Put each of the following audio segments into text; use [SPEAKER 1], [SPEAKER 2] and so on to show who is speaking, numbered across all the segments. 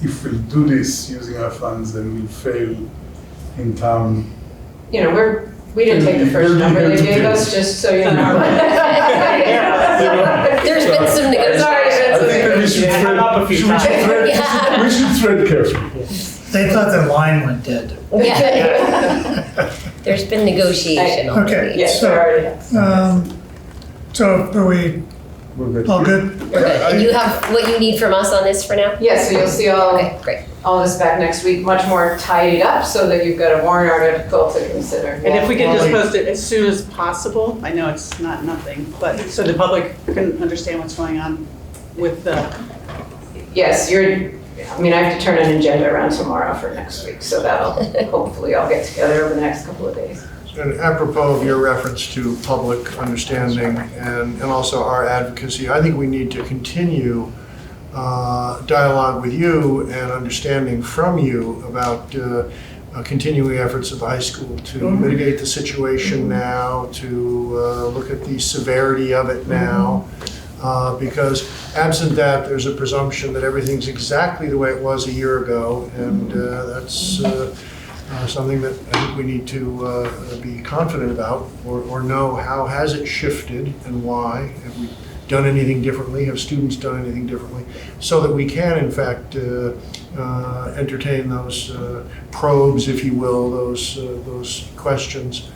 [SPEAKER 1] if we do this using our funds, then we fail in town.
[SPEAKER 2] You know, we're, we didn't take the first number they gave us, just so you know.
[SPEAKER 3] There's been some
[SPEAKER 2] There's
[SPEAKER 3] negotiation.
[SPEAKER 2] already
[SPEAKER 1] I
[SPEAKER 2] been some
[SPEAKER 1] think that we should
[SPEAKER 2] negotiation.
[SPEAKER 4] Yeah,
[SPEAKER 1] tread, should we should tread,
[SPEAKER 4] I'm up a few times.
[SPEAKER 3] Yeah.
[SPEAKER 1] we should tread carefully.
[SPEAKER 5] They thought their line went dead.
[SPEAKER 3] Yeah. There's been
[SPEAKER 2] Okay.
[SPEAKER 3] negotiation already.
[SPEAKER 5] Yeah.
[SPEAKER 2] Yes, there already has.
[SPEAKER 5] Um, so are we
[SPEAKER 1] We're good.
[SPEAKER 5] all Oh, good?
[SPEAKER 3] We're good. And you have what you need from us on this for now?
[SPEAKER 2] Yeah, so you'll see all,
[SPEAKER 3] Okay, great.
[SPEAKER 2] all this back next week, much more tidied up, so that you've got a warrant article to consider.
[SPEAKER 4] And if we could just
[SPEAKER 5] Wally.
[SPEAKER 4] post it as soon as possible, I know it's not nothing, but so the public can understand what's going on with the,
[SPEAKER 2] Yes, you're, I mean, I have to turn an agenda around tomorrow for next week, so that'll, hopefully I'll get together over the next couple of days.
[SPEAKER 6] And apropos of your reference to public understanding and, and also our advocacy, I think we need to continue uh, dialogue with you and understanding from you about uh, uh, continuing efforts of the high school to mitigate the situation now, to uh, look at the severity of it now. Uh, Because absent that, there's a presumption that everything's exactly the way it was a year ago, and uh, that's uh, uh, something that I think we need to uh, be confident about or, or know how has it shifted and why? Have we done anything differently? Have students done anything differently? So that we can, in fact, uh, uh, entertain those uh, probes, if you will, those, uh, those questions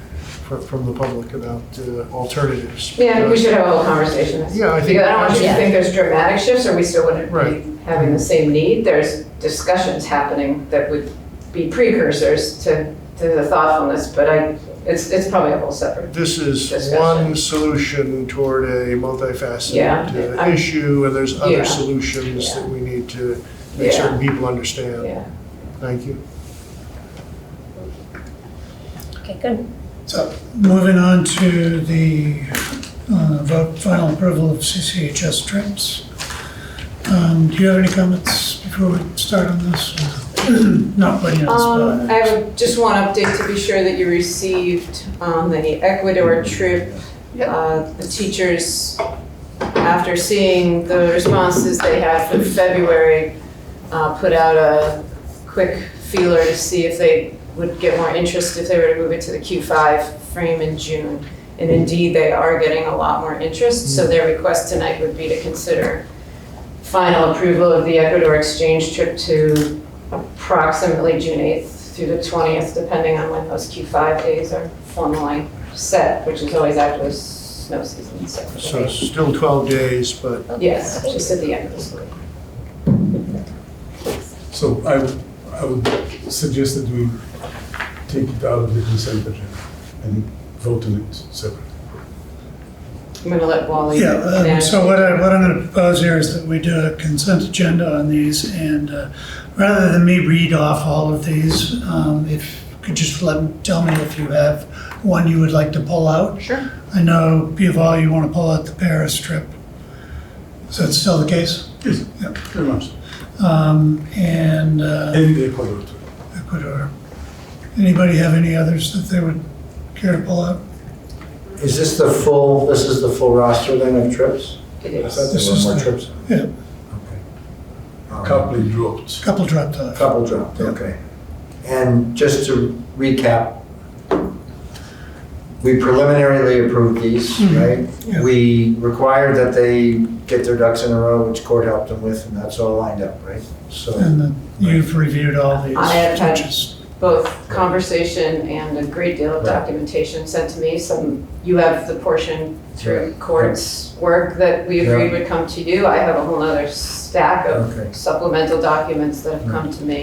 [SPEAKER 6] fro- from the public about uh, alternatives.
[SPEAKER 2] Yeah, we should have a whole conversation.
[SPEAKER 6] Yeah, I think-
[SPEAKER 2] I don't want you to
[SPEAKER 3] Yeah.
[SPEAKER 2] think there's dramatic shifts, or we still wouldn't
[SPEAKER 6] Right.
[SPEAKER 2] be having the same need. There's discussions happening that would be precursors to, to the thoughtfulness, but I, it's, it's probably a whole separate.
[SPEAKER 6] This is
[SPEAKER 2] Discussion.
[SPEAKER 6] one solution toward a
[SPEAKER 2] Yeah,
[SPEAKER 6] multifaceted uh,
[SPEAKER 2] I'm-
[SPEAKER 6] issue, and there's
[SPEAKER 2] Yeah.
[SPEAKER 6] other solutions that we need to make
[SPEAKER 2] Yeah.
[SPEAKER 6] certain people understand.
[SPEAKER 2] Yeah.
[SPEAKER 6] Thank you.
[SPEAKER 3] Okay, good.
[SPEAKER 5] So moving on to the uh, vote, final approval of CCHS trips. Um, do you have any comments before we start on this? Not putting you on
[SPEAKER 2] Um, I
[SPEAKER 5] the spot.
[SPEAKER 2] have just one update to be sure that you received on the Ecuador trip.
[SPEAKER 4] Yep.
[SPEAKER 2] Uh, The teachers, after seeing the responses they had for February, uh, put out a quick feeler to see if they would get more interest if they were to move it to the Q5 frame in June. And indeed, they are getting a lot more interest,
[SPEAKER 5] Hmm.
[SPEAKER 2] so their request tonight would be to consider final approval of the Ecuador exchange trip to approximately June 8th through the 20th, depending on when those Q5 days are formally set, which is always after the snow season, so.
[SPEAKER 6] So still 12 days, but
[SPEAKER 2] Yes, just at the end of the school. year.
[SPEAKER 1] So I, would- I would suggest that we take it out of the consent agenda and vote on it separately.
[SPEAKER 2] I'm going to let Wally.
[SPEAKER 5] Yeah, um,
[SPEAKER 2] manage
[SPEAKER 5] so
[SPEAKER 2] it.
[SPEAKER 5] what I, what I'm gonna propose here is that we do a consent agenda on these and, uh, rather than me read off all of these, um, if, you could just let, tell me if you have one you would like to pull out.
[SPEAKER 4] sure,
[SPEAKER 5] I know, Pival, you want to pull out the Paris trip. Is that still the case?
[SPEAKER 1] Yes,
[SPEAKER 5] Yeah.
[SPEAKER 1] very much.
[SPEAKER 5] Um, And uh,
[SPEAKER 1] And the Ecuador too.
[SPEAKER 5] Ecuador. Anybody have any others that they would care to pull out?
[SPEAKER 7] Is this the full, this is the full roster then of trips?
[SPEAKER 2] It
[SPEAKER 7] I
[SPEAKER 2] is.
[SPEAKER 7] thought
[SPEAKER 5] This
[SPEAKER 7] there were
[SPEAKER 5] is
[SPEAKER 7] more
[SPEAKER 5] the-
[SPEAKER 7] trips.
[SPEAKER 5] Yeah,
[SPEAKER 7] Um,
[SPEAKER 1] Coupling dropped.
[SPEAKER 5] couple dropped off.
[SPEAKER 7] Couple dropped,
[SPEAKER 5] Yeah.
[SPEAKER 7] okay. And just to recap, we preliminarily approved these,
[SPEAKER 5] Mhm,
[SPEAKER 7] right?
[SPEAKER 5] yeah.
[SPEAKER 7] We required that they get their ducks in a row, which court helped them with, and that's all lined up, right? So,
[SPEAKER 5] And then you've reviewed all these.
[SPEAKER 2] I have had-
[SPEAKER 5] which is-
[SPEAKER 2] Both conversation and a great deal of
[SPEAKER 7] Right.
[SPEAKER 2] documentation sent to me. Some, you have the portion through
[SPEAKER 7] Right.
[SPEAKER 2] court's work that we agreed would come to you. I have a whole nother stack
[SPEAKER 7] Okay.
[SPEAKER 2] of supplemental documents that have come to me.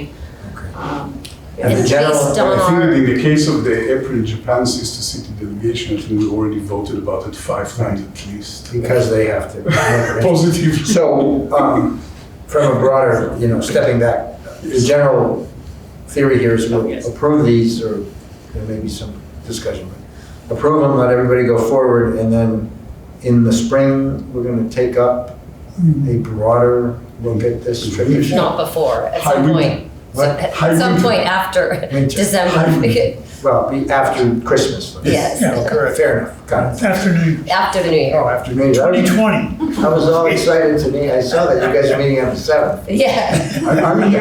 [SPEAKER 7] Okay.
[SPEAKER 2] Um,
[SPEAKER 7] And
[SPEAKER 2] yes.
[SPEAKER 7] the general-
[SPEAKER 3] based
[SPEAKER 1] I
[SPEAKER 3] on
[SPEAKER 1] think
[SPEAKER 3] our-
[SPEAKER 1] that in the case of the April Japan sister city delegation, I think we already voted about it five times at least.
[SPEAKER 7] because they have to.
[SPEAKER 1] Positive.
[SPEAKER 7] So, um, from a broader, you know, stepping back, the general theory here is
[SPEAKER 4] Oh,
[SPEAKER 7] we'll
[SPEAKER 4] yes.
[SPEAKER 7] approve these, or there may be some discussion. but Approve them, let everybody go forward, and then in the spring, we're gonna take up a broader look at this trip issue.
[SPEAKER 3] Not before, at some
[SPEAKER 1] Hybrid.
[SPEAKER 3] point. So
[SPEAKER 7] What?
[SPEAKER 3] At some
[SPEAKER 1] Hybrid.
[SPEAKER 3] point after
[SPEAKER 7] Winter.
[SPEAKER 3] December.
[SPEAKER 1] Hybrid.
[SPEAKER 7] Well, be after Christmas.
[SPEAKER 3] Yes,
[SPEAKER 5] Yeah.
[SPEAKER 7] Correct, fair enough, got it.
[SPEAKER 5] Afternoon,
[SPEAKER 3] after the new year.
[SPEAKER 7] Oh, after New Year's. I was-
[SPEAKER 5] 2020.
[SPEAKER 7] I was all excited to me, I saw that you guys are meeting on the seventh.
[SPEAKER 3] Yeah.
[SPEAKER 1] I- I'm here